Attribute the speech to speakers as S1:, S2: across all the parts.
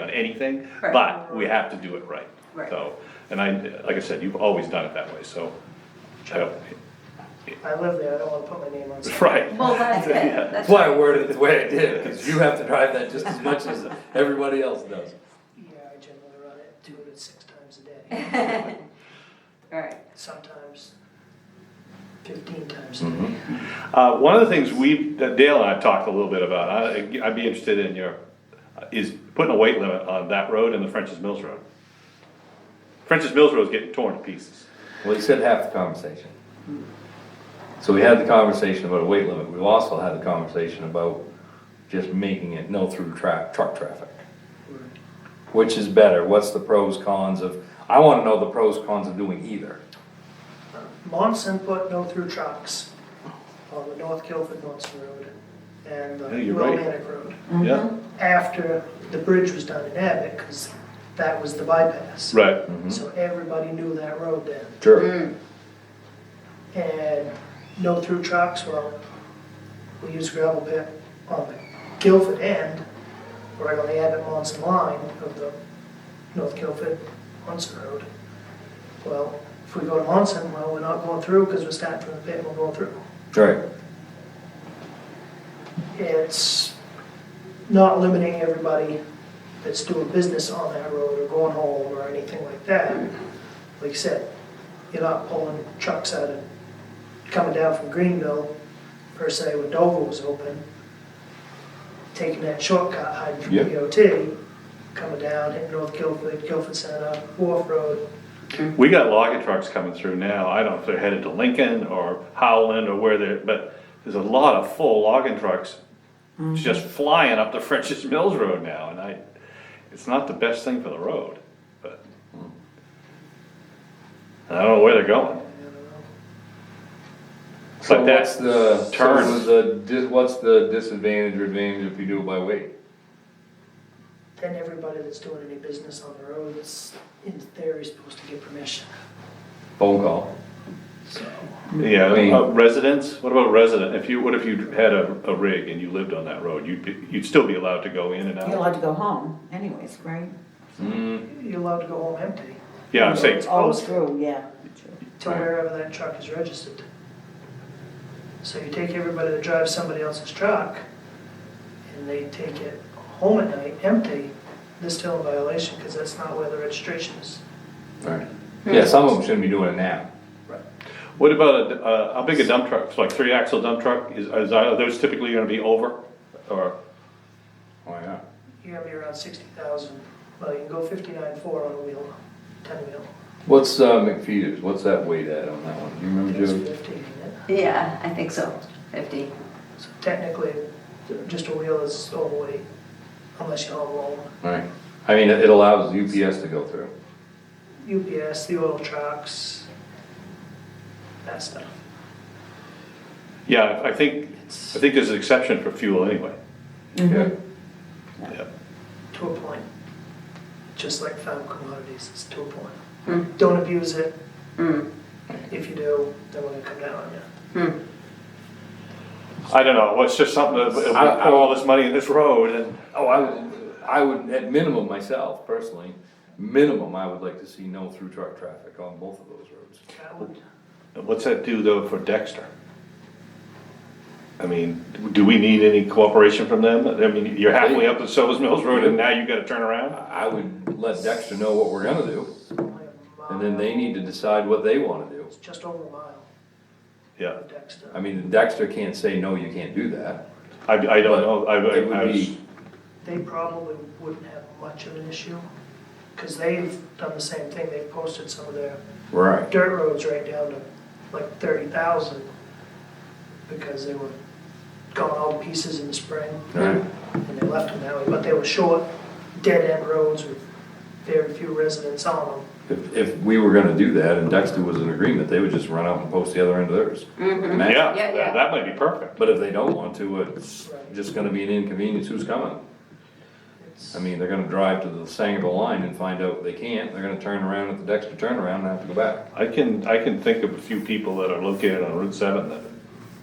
S1: on anything,
S2: Right.
S1: but we have to do it right.
S2: Right.
S1: So, and I, like I said, you've always done it that way, so. I don't-
S3: I live there, I don't wanna put my name on. something.
S1: Right.
S2: Well, that's it,
S1: Yeah.
S2: that's.
S4: That's why I worded it the way I did, because you have to drive that just as much as everybody else does.
S3: Yeah, I generally run it two to six times a day,
S2: Alright,
S3: sometimes fifteen times a day.
S1: Uh, one of the things we, that Dale and I have talked a little bit about, I, I'd be interested in your, is putting a weight limit on that road and the French's Mills Road. French's Mills Road's getting torn to pieces.
S4: Well, you said half the conversation. So we had the conversation about a weight limit, we also had the conversation about just making it no through tra- truck traffic. Which is better, what's the pros, cons of, I wanna know the pros, cons of doing either.
S3: Monson put no through trucks on the North Guilford Monson Road and the
S1: Yeah, you're right.
S3: Romantic Road.
S2: Mm-hmm.
S1: Yeah,
S3: After the bridge was done in Abbott, cause that was the bypass.
S1: right. Mm-hmm.
S3: So everybody knew that road then.
S4: Sure.
S3: and no through trucks, well, we use gravel pit on the Guilford end, right on the Abbott Monson line of the North Guilford Monson Road. Well, if we go to Monson, well, we're not going through because we're starting from the pit and we're going through.
S4: Right.
S3: It's not limiting everybody that's doing business on that road or going home or anything like that. Like I said, you're not pulling trucks out of, coming down from Greenville per se when Dover was open. Taking that shortcut hiding from
S4: Yeah.
S3: DOT, coming down, hitting North Guilford, Guilford Center, Wharf Road.
S1: We got logging trucks coming through now, I don't know if they're headed to Lincoln or Howland or where they're, but there's a lot of full logging trucks just flying up the French's Mills Road now, and I, it's not the best thing for the road, but. hmm. I don't know where they're going.
S4: So
S1: But that's
S4: what's the,
S1: the
S4: so was
S1: turn,
S4: the, dis- what's the disadvantage or advantage if you do it by weight?
S3: Then everybody that's doing any business on the road is, in theory, supposed to get permission,
S4: Phone call.
S3: so.
S1: yeah,
S4: I mean-
S1: uh, residents, what about resident, if you, what if you had a, a rig and you lived on that road, you'd be, you'd still be allowed to go in and
S5: You're
S1: out?
S5: allowed to go home anyways, right?
S4: Mm.
S3: You're allowed to go home empty,
S1: Yeah, I'm saying,
S5: Oh, true, yeah. true.
S3: to
S4: Right.
S3: wherever that truck is registered. So you take everybody that drives somebody else's truck, and they take it home at night empty, This still in violation, because that's not where the registration is.
S4: Right. Yeah, some of them shouldn't be doing it now.
S1: What about a, uh, how big a dump truck, It's like three axle dump truck, is, is, are those typically gonna be over, or, Oh,
S4: Why not?
S3: You're gonna be around sixty thousand, well, you can go fifty-nine four on a wheel, ten wheel,
S4: What's, uh, McFeeters, what's that weight at on that one? Do you remember,
S3: it's
S4: Joe?
S3: fifty, isn't it?
S2: Yeah, I think so, fifty.
S3: So technically, just a wheel is overweight, unless you're home alone.
S4: Right, I mean, it it allows UPS to go through.
S3: UPS, the oil trucks, that stuff.
S1: yeah, I think, I think there's an exception for fuel anyway.
S4: Yeah.
S1: Yeah.
S3: to a point. Just like found commodities, it's to a point. Don't abuse it.
S2: Mm.
S3: If you do, then we're gonna come down on you.
S1: I don't know, well, it's just something, that- we
S4: I- I-
S1: pour all this money in this road, and,
S4: Oh, I would, I would, at minimum myself personally, minimum, I would like to see no through truck traffic on both of those roads.
S3: That would,
S1: what's that do though for Dexter? I mean, do we need any cooperation from them, I mean, you're halfway up the Silver's Mills Road and now you gotta turn around?
S4: I would let Dexter know what we're gonna do,
S3: only a
S4: and then they
S3: mile.
S4: need to decide what they wanna do.
S3: It's just over a mile
S1: Yeah,
S3: of Dexter.
S4: I mean, Dexter can't say, no, you can't do that.
S1: I, I don't know, I,
S4: It
S1: I I
S4: would
S1: was,
S4: be,
S3: They probably wouldn't have much of an issue, cause they've done the same thing, they've posted some of their
S4: right,
S3: dirt roads right down to like thirty thousand, because they were gone all to pieces in the spring.
S4: right,
S3: and they left them that way, but they were short, dead-end roads with very few residents on them.
S4: if, if we were gonna do that and Dexter was in agreement, they would just run out and post the other end of theirs. And that's-
S1: yeah,
S2: Yeah, yeah.
S1: that that might be perfect.
S4: But if they don't want to, it's
S3: Right.
S4: just gonna be an inconvenience, who's coming?
S3: It's-
S4: I mean, they're gonna drive to the Sangerville line and find out they can't, they're gonna turn around at the Dexter turnaround and have to go back.
S1: I can, I can think of a few people that are located on Route seven that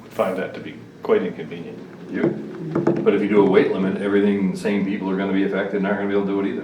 S1: would find that to be quite inconvenient.
S4: You. But if you do a weight limit, everything, the same people are gonna be affected, and aren't gonna be able to do it either.